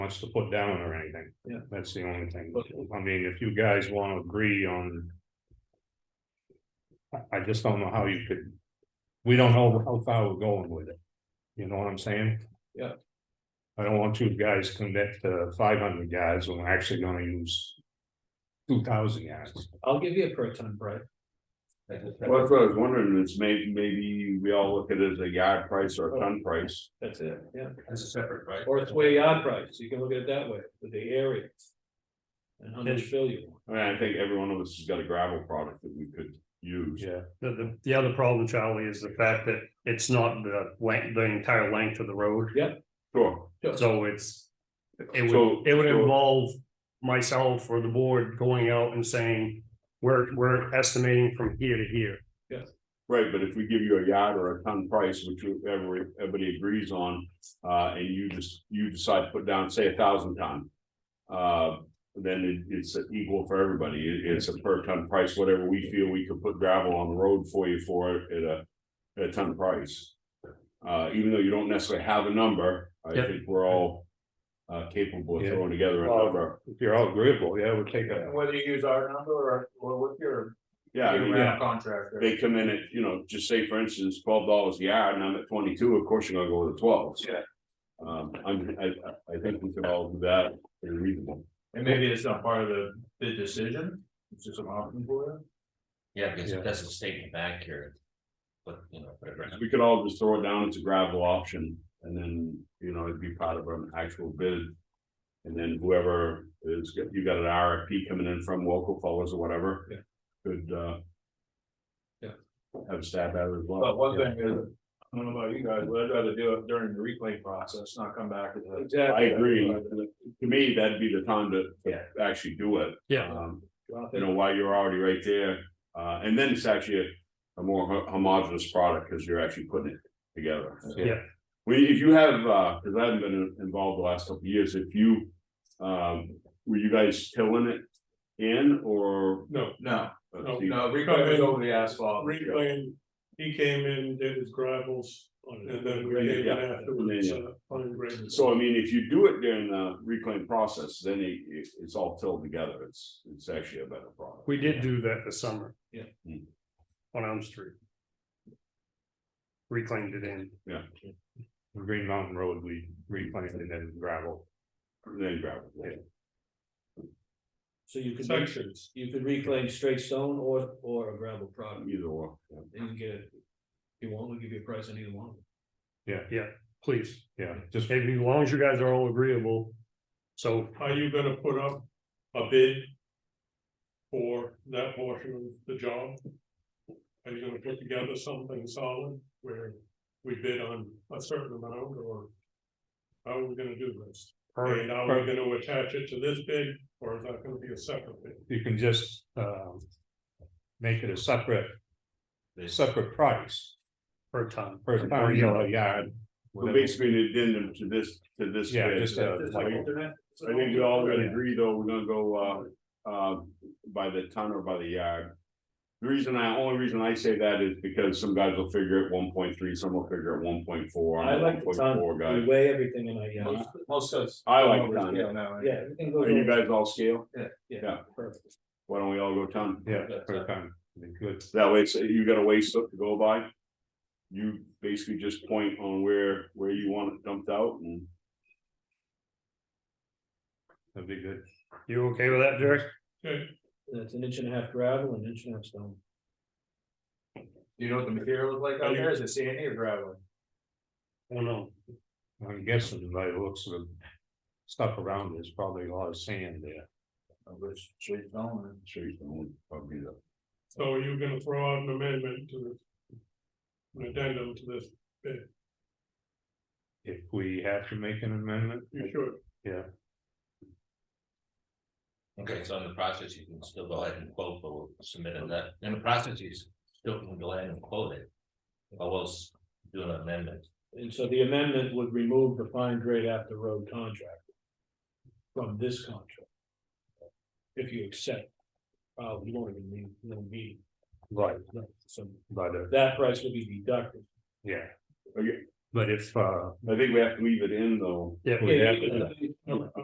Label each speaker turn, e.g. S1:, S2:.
S1: else to put down or anything.
S2: Yeah.
S1: That's the only thing, but I mean, if you guys wanna agree on. I, I just don't know how you could, we don't know how far we're going with it, you know what I'm saying?
S2: Yeah.
S1: I don't want you guys to commit to five hundred yards when we're actually gonna use two thousand yards.
S2: I'll give you a per ton, Brett.
S3: Well, that's what I was wondering, is maybe, maybe we all look at it as a yard price or a
S2: Oh.
S3: ton price.
S2: That's it, yeah.
S4: That's a separate, right?
S2: Or it's way yard price, you can look at it that way, with the area. And how much fill you want.
S3: I mean, I think every one of us has got a gravel product that we could use.
S1: Yeah.
S5: The, the, the other problem, Charlie, is the fact that it's not the length, the entire length of the road,
S3: Sure,
S5: so it's. It
S3: So-
S5: would, it would
S3: so-
S5: involve myself or the board going out and saying, we're, we're estimating from here to here.
S3: right, but if we give you a yard or a ton price, which you- every, everybody agrees on, uh, and you just, you decide to put down, say, a thousand ton. Uh, then it, it's equal for everybody, It- it's a per ton price, whatever we feel we could put gravel on the road for you for it at a, at a ton price. Uh, even though you don't necessarily have a number, I
S5: Yep.
S3: think we're all. Uh, capable of
S1: Yeah.
S3: throwing together a
S1: Well,
S3: number,
S1: If you're all agreeable, yeah, we'll take a,
S2: Whether you use our number or, or with your.
S3: yeah, I mean,
S2: contractor.
S3: they come in at, you know, just say for instance, twelve dollars a yard, and I'm at twenty-two, of course you're gonna go with the twelves.
S2: Yeah.
S3: Um, I'm, I, I- I think we could all do that, very reasonable.
S2: And maybe it's not part of the, the decision, it's just an option for you.
S4: Yeah, because
S1: Yeah.
S4: it doesn't state in the back here. But, you know, whatever.
S3: We could all just throw it down as a gravel option, and then, you know, it'd be part of an actual bid. And then whoever is, you got an RFP coming in from local fellows or whatever.
S2: Yeah.
S3: Could, uh.
S2: Yeah.
S3: Have a stab at it as well.
S6: But one thing is, I don't know about you guys, but I'd rather do it during the reclaim process, not come back to the.
S3: I
S2: Exactly.
S3: agree, to me, that'd be the time to, to actually do it.
S5: Yeah.
S3: Um,
S2: Well, I
S3: you
S2: think-
S3: know, while you're already right there, uh, and then it's actually a- a more ho- homogeneous product, because you're actually putting it together.
S5: Yeah.
S3: We, if you have, uh, because I haven't been involved the last couple of years, if you, um, were you guys tilling it in, or?
S7: No.
S6: No,
S3: let's
S7: No,
S3: see.
S6: no, reclaim is over the asphalt.
S7: Reclaim, he came in, did his gravels, and then we came in
S3: Yeah.
S7: afterwards,
S3: Yeah,
S7: uh, fine grain.
S3: So I mean, if you do it during the reclaim process, then it, it- it's all tilled together, it's, it's actually a better product.
S5: We did do that this summer.
S2: Yeah.
S3: Hmm.
S5: On Elm Street. Reclaimed it in.
S1: Green Mountain Road, we replanted and then gravel.
S3: Then gravel, yeah.
S2: So you could, re-
S7: Sections.
S2: you could reclaim straight stone or, or a gravel product,
S3: either or. yeah.
S2: and get, it. if you want, we'll give you a price on either one.
S5: Please,
S1: Yeah, just
S5: if, as long as you guys are all agreeable. So
S7: Are you gonna put up a bid? For that portion of the job? Are you gonna put together something solid where we bid on a certain amount or? How are we gonna do this?
S5: per,
S7: And are we gonna attach it to this bid or is that gonna be a separate bid?
S1: you can just um. Make it a separate. Separate price
S5: per ton.
S1: per ton or yard.
S3: So
S1: whatever.
S3: basically, an addendum to this, to this.
S1: Yeah,
S3: bid,
S1: just
S3: uh,
S1: a-
S3: like- I think we all gotta agree though, we're gonna go uh, uh, by the ton or by the yard. The reason I, only reason I say that is because some guys will figure it one point three, some will figure it one point four.
S2: I like the ton, we
S3: Guys,
S2: weigh everything in our yard,
S6: Most- Most of us.
S3: I like ton.
S6: Yeah, no,
S2: yeah, everything goes.
S3: are you
S2: over.
S3: guys all scale?
S2: Yeah,
S3: yeah.
S2: perfect,
S3: Why don't we all go ton?
S1: Yeah, per ton, Be good,
S3: That way, so you got a waste to go by. You basically just point on where, where you want it dumped out and.
S1: that'd be good.
S5: You okay with that, Jerry?
S2: that's an inch and a half gravel, an inch and a half stone.
S6: Do you know what the material is like out there? Is it sandy or gravel?
S5: I don't know.
S1: I'm guessing by the looks of the stuff around, there's probably a lot of sand there.
S6: Of which straight stone or?
S3: Straight stone, probably the.
S7: So are you gonna throw out an amendment to this? An addendum to this,
S1: If we have to make an amendment,
S7: you should.
S4: Okay, so in the process, you can still go ahead and quote, but we'll submit it that, in the process, you still can go ahead and quote it. Or else do an amendment.
S2: And so the amendment would remove the fine grade after road contract. From this contract. If you accept, uh, we won't even need, no meeting,
S1: right,
S2: so
S1: but uh,
S2: that price will be deducted.
S1: yeah.
S3: Okay.
S1: But if uh,
S3: I think we have to leave it in though.
S5: Yeah.
S1: we have to
S2: Yeah,